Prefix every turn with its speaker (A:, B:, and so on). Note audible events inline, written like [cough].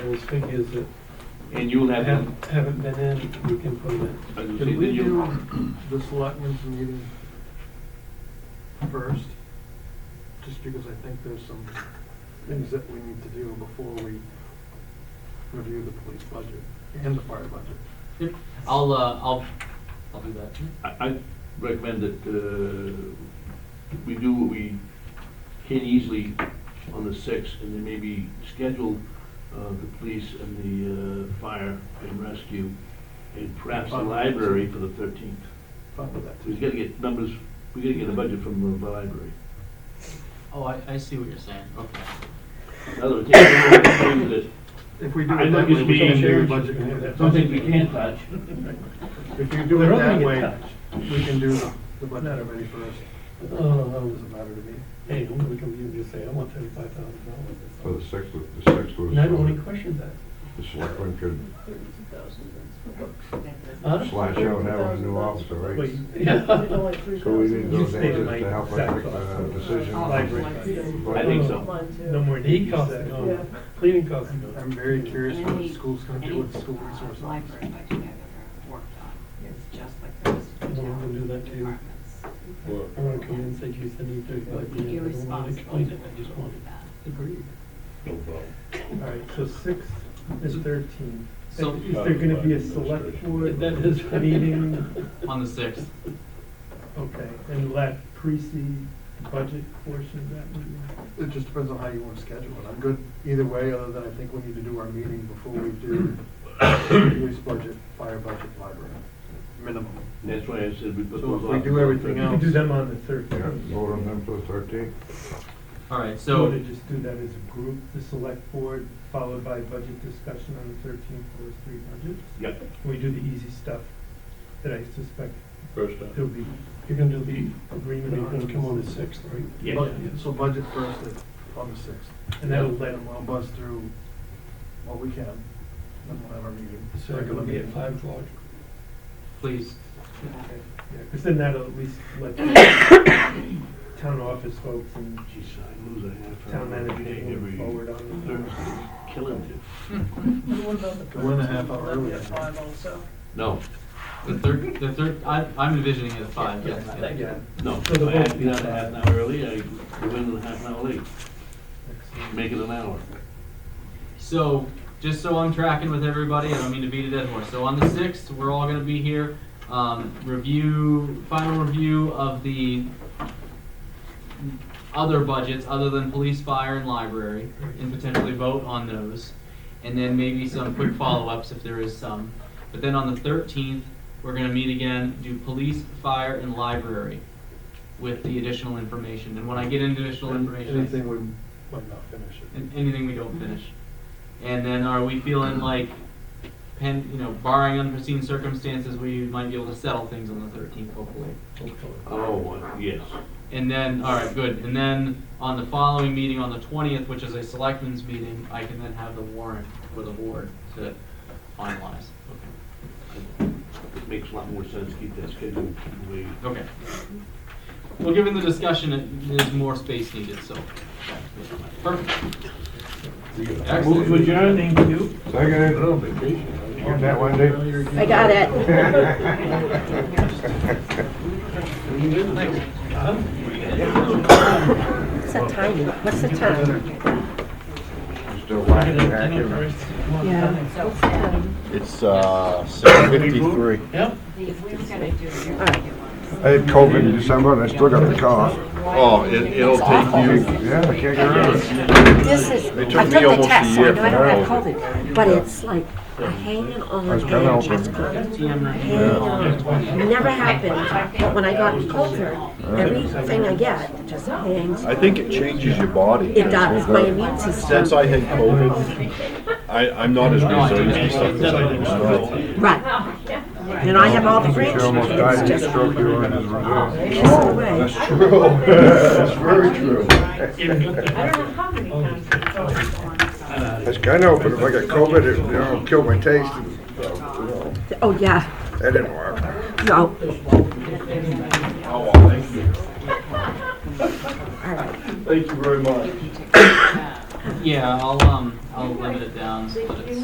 A: those figures that
B: And you'll have them,
A: haven't, haven't been in, we can put in.
B: as you say,
C: Can
B: then
C: we
B: you'll,
C: do the selectmen's meeting first? Just because I think there's some things that we need to do before we review the police budget and the fire budget.
D: Yep, I'll, uh, I'll, I'll do that.
B: I, I recommend that, uh, we do what we can easily on the sixth, and then maybe schedule, uh, the police and the, uh, fire and rescue, and perhaps the library for the thirteenth.
C: Fine with that
B: So we
C: too.
B: gotta get numbers, we gotta get a budget from the library.
D: Oh, I, I see what you're saying, okay.
B: In other words, take the one that-
C: If we do
B: I
C: it that
B: think
C: way,
B: it's
C: we can
B: being,
C: do the
A: changed.
C: budget.
B: something we can touch.
C: If you do
A: They're
C: it
A: only
C: that
A: gonna
C: way,
A: touch.
C: we can do the the budget already first.
A: Oh, that was,
C: Doesn't matter to me.
A: hey, I'm gonna come to you and just say, I want thirty-five thousand
E: For the
A: dollars.
E: sixth, the sixth was,
A: And I don't want any
E: the
A: questions that.
E: selectmen could
A: Huh?
E: slash out, that was a new officer, right?
A: Wait, yeah.
E: So we need
A: You
E: those
A: stated
E: answers
A: my
E: to help us
A: exact
E: make the
A: thoughts.
E: decision.
A: Library.
B: I think so.
A: No more knee costs, are
F: Yeah.
A: gone. cleaning costs. are
C: I'm- I'm
A: gone.
C: very curious what
F: Any-
C: the school's gonna do
F: any
C: with the school resource officer.
F: Library budget I've ever worked on is just like the rest of the
A: Well, we'll
F: town
A: do that too.
F: departments.
A: I wanna come in and say, geez, I need
F: It would
A: thirty-five, grand. I
F: be
A: don't wanna
F: irresponsible
A: explain
F: to
A: it, I just want
F: do that.
A: it agreed.
E: uh,
A: All right, so six is thirteen.
D: So-
A: Is there gonna be a select board
D: That
A: is
D: is-
A: meeting?
D: On the sixth,
A: Okay, and will that precede the budget portion of that meeting?
C: It just depends on how you want to schedule it. I'm good either way, other than I think we need to do our meeting before we do police budget, fire budget, library, minimum.
B: That's why I said we put
C: So if
B: those off.
C: we do everything
A: We could do
C: else-
A: them on the third.
E: Yeah, vote on them for the thirteenth.
D: alright,
A: So
D: so,
A: to just do that as a group, the select board, followed by budget discussion on the thirteenth, those three budgets?
B: Yep.
A: We do the easy stuff that I suspect
B: First
A: there'll be. You're gonna do the agreement
C: You're gonna come on the
A: sixth, right?
B: Yeah.
C: But- So budget first at- on the sixth.
A: And that'll let
C: Let
A: them
C: them all
A: all,
C: buzz through what we can, then we'll have our meeting.
A: so it'll be at
C: Regular
A: five o'clock.
D: please,
A: Okay, yeah, because then that'll at least let the [coughs] town office folks and
B: Geez, I lose a half hour.
A: town manager
B: Okay,
A: move
B: every
A: forward on it.
B: Thursday, killing it.
G: What about the?
C: One and a half hour earlier.
G: At five also.
B: No,
D: the third, the third, I, I'm envisioning it at five, yes,
G: Yeah,
D: yeah.
G: thank you.
A: Yeah,
B: no.
A: So the
B: I have to
A: vote-
B: get out a half an hour early, I go in a half an hour late,
A: excellent.
B: make it an hour.
D: So, just so I'm tracking with everybody, I don't mean to beat a dead horse, so on the sixth, we're all gonna be here, um, review, final review of the other budgets, other than police, fire, and library, and potentially vote on those, and then maybe some quick follow-ups if there is some. But then on the thirteenth, we're gonna meet again, do police, fire, and library with the additional information, and when I get into additional
C: meeting.
D: information. I-
C: Anything we might not finish it.
D: and anything we don't finish. And then are we feeling like, pen, you know, barring unforeseen circumstances, we might be able to settle things on the thirteenth, hopefully.
B: Oh, uh, yes.
D: And then, all right, good. And then on the following meeting, on the twentieth, which is a selectmen's meeting, I can then have the warrant for the board to finalize.
B: It makes a lot more sense to keep that schedule the way.
D: Okay. Well, given the discussion, it- there's more space needed, so. Perfect.
B: Move to
D: Excellent.
B: adjourn, thank you.
E: Second.
B: You're on vacation.
E: You got that, Wendy?
H: I got
E: [laughs]
D: Thanks.
H: What's that time? What's the time?
E: Still whacking back in.
H: Yeah. What's the time?
I: It's uh, 6:53.
A: Yep.
F: If we were gonna do your regular ones.
E: I had COVID in December and I still got the cough.
I: Oh, it- it'll take you,
E: Yeah, I can't get rid of it.
H: This is, I
I: It took
H: took
I: me
H: the
I: almost a
H: test, so I
I: year
H: know I
I: for
H: don't have
I: that
H: COVID, but it's like a hanging on
E: It's been
H: and
E: open.
H: chest cold.
D: TM review.
H: Hanging on. Never happened, but when I got colder, everything I get just hangs.
I: I think it changes your body.
H: It does, my immune system.
I: Since I had COVID, I, I'm not as resilient to stuff as I used to.
F: [laughs]
H: Right. And I have all the
E: She almost
H: grandchildren,
E: died
H: it's
E: of
H: just,
E: stroke here in his
H: Yes, it will.
E: That's true. That's very
I: [laughs]
E: true.
F: I don't know how many times we've voted on something.
E: It's kind of open. If I got COVID, it, you know, killed my taste. and, uh, you know,
H: oh yeah,
E: That didn't work.
H: no,
I: Oh, well, thank you.
H: all right.
B: Thank you very much.
D: Yeah, I'll, um, I'll I'll limit it down, split it.